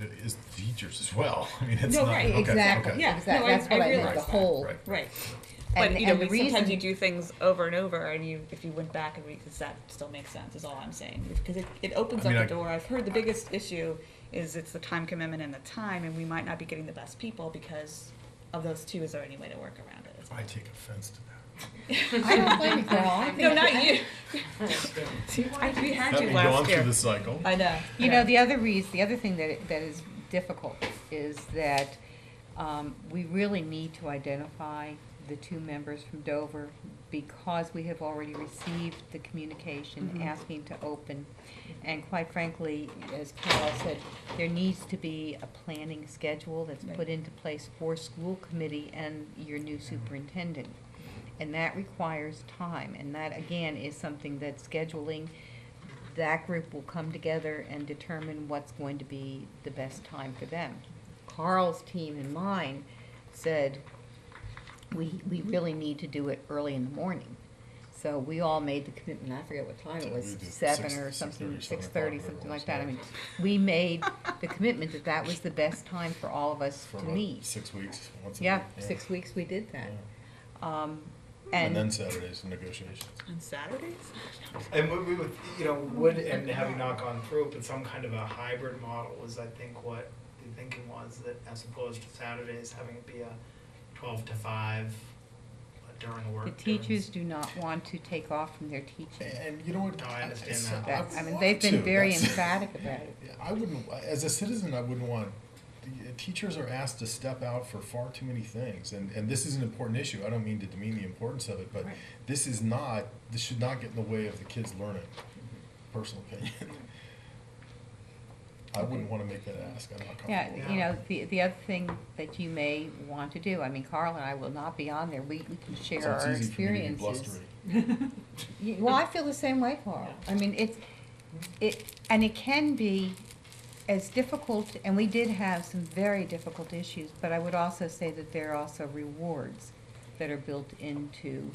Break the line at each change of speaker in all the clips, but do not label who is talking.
it is the teachers as well. I mean, it's
No,
not,
right,
okay,
Exactly,
okay.
Yeah,
exactly,
no, I-
that's
I
what I meant,
realize
the
that,
whole,
Right.
Right.
And-
But, you know,
and
we-
the
sometimes
reason-
you do things over and over, and you, if you went back and re, does that still makes sense, is all I'm saying. Because it, it opens
I
up
mean,
the
I-
door. I've heard the biggest issue is it's the time commitment and the time, and we might not be getting the best people because of those two. Is there any way to work around it?
I take offense to that.
I don't blame you, Carol, I
No,
think,
not you. I- we had
Let
you
me go on
last
through
year.
the cycle.
I know.
you
yeah.
know, the other reason, the other thing that, it- that is difficult is that, um, we really need to identify the two members from Dover because we have already received the communication
Mhm.
asking to open. And quite frankly, as Carol said, there needs to be a planning schedule that's
Right.
put into place for school committee and your new superintendent. And that requires time, and that again is something that scheduling, that group will come together and determine what's going to be the best time for them. Carl's team and mine said, we, we really need to do it early in the morning. So we all made the commitment, I forget what time it was,
We did
seven
six-
or
6:30,
something, six
7:00,
thirty, something like that, I
whatever it
mean, we made the commitment that that was the best time for all of us
For
to
about
meet.
six weeks, once a
Yeah,
week,
six weeks we did that.
Yeah.
Um,
And then
and,
Saturdays and negotiations.
On Saturdays?
And what we would, you know, would, and having not gone through, it, but some kind of a hybrid model was, I think, what the thinking was, that as opposed to Saturdays, having it be a twelve to five uh, during work.
the teachers do not want to take off from their teaching.
And you know what?
No, I understand
it's-
that.
That, I mean,
want
they've
to.
been very
That's-
emphatic about it.
Yeah, I wouldn't, as a citizen, I wouldn't want, the- uh, teachers are asked to step out for far too many things, and, and this is an important issue, I don't mean to demean the importance of it, but
Right.
this is not, this should not get in the way of the kids learning,
Mm-hmm.
personal opinion. I wouldn't wanna make that ask, I'm not
Yeah,
comfortable.
you
Yeah.
know, the, the other thing that you may want to do, I mean, Carl and I will not be on there, we, we can share
So it's
our
easy for me to be
experiences.
blustery.
You- Well, I feel the same way, Carl. I mean, it's, it, and it can be as difficult, and we did have some very difficult issues, but I would also say that there are also rewards that are built into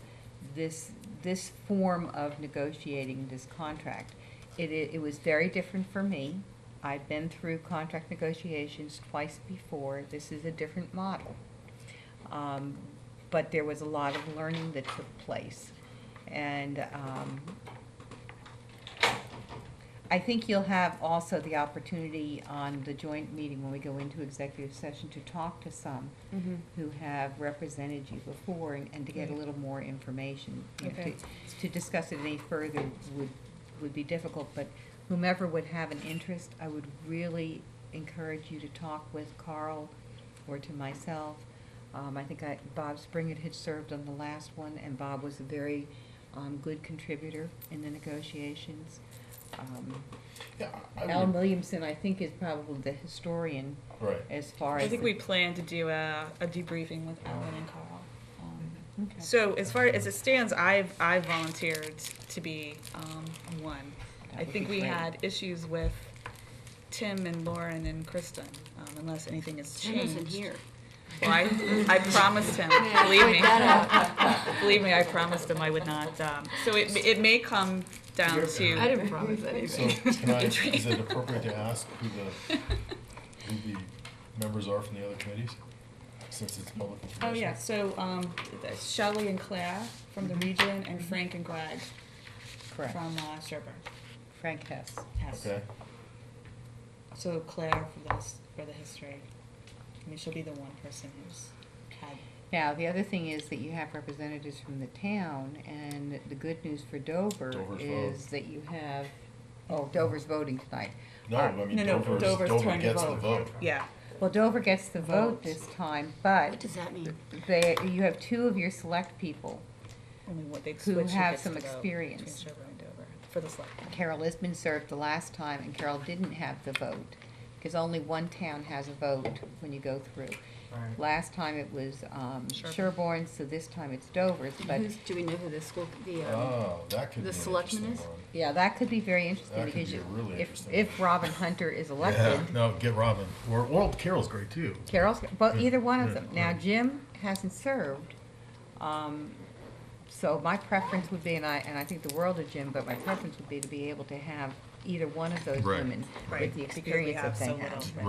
this, this form of negotiating this contract. It, i- it was very different for me. I've been through contract negotiations twice before. This is a different model. Um, but there was a lot of learning that took place. And, um, I think you'll have also the opportunity on the joint meeting when we go into executive session to talk to some
Mm-hmm.
who have represented you before and, and to get a little more information. You know,
Okay.
To, to discuss it any further would, would be difficult, but whomever would have an interest, I would really encourage you to talk with Carl or to myself. Um, I think I, Bob Springett had served on the last one, and Bob was a very, um, good contributor in the negotiations. Um,
Yeah, I- I
Alan
would,
Williamson, I think, is probably the historian
right.
as far as.
I think
the-
we plan to do a, a debriefing with Alan and Carl. Um,
Mm-hmm.
Okay.
So as far as it stands, I've, I volunteered to be um, one.
That
I
would
think
be
we
great.
had issues with Tim and Lauren and Kristen, um, unless anything has
Tim isn't
changed.
here.
Well, I, I promised him, believe me. Believe me, I promised him I would not. um, So it, it may come down
I
to,
didn't promise
So
anything.
can I, is it appropriate to ask who the, who the members are from the other committees? Since it's public
oh
information.
yeah, so um, Shelley and Claire from the region and Frank and Greg
Mm-hmm. Correct.
from uh, Sherburne.
Frank Hess.
Yes.
Okay,
So Claire for the, his- for the history, I mean, she'll be the one person who's had,
Now, the other thing is that you have representatives from the town, and the good news for Dover
Dover's
is
vote.
that you have, oh, Dover's voting tonight.
no, I mean,
No, no,
Dover's,
Dover's
Dover
turn to
gets the
vote.
vote.
yeah.
Well, Dover gets the vote
Vote.
this time,
What
but
does that mean?
they, you have two of your select people.
Only what they
Who
switch who
have
gets
some
to vote
experience.
between Sherburne and Dover for the select. board.
Carol Isbin served the last time, and Carol didn't have the vote, because only one town has a vote when you go through.
Right.
Last time it was um,
Sherburne.
Sherborne, so this time it's Dover's, but,
Who's, do we know who the school, the, um,
Oh, that could be
The
an
selectmen
interesting
is?
one.
yeah, that could be very interesting,
That could
because
be
you-
a really
if,
interesting
if
one.
Robin Hunter is
Yeah,
elected,
no, get Robin, or, well, Carol's great too.
Carol's, well,
Yeah,
either one of
yeah,
them. Now,
right.
Jim hasn't served, um, so my preference would be, and I, and I think the world of Jim, but my preference would be to be able to have either one of those
Right.
women
Right,
with the
because we
experience
have
that they
so
have.
little, right.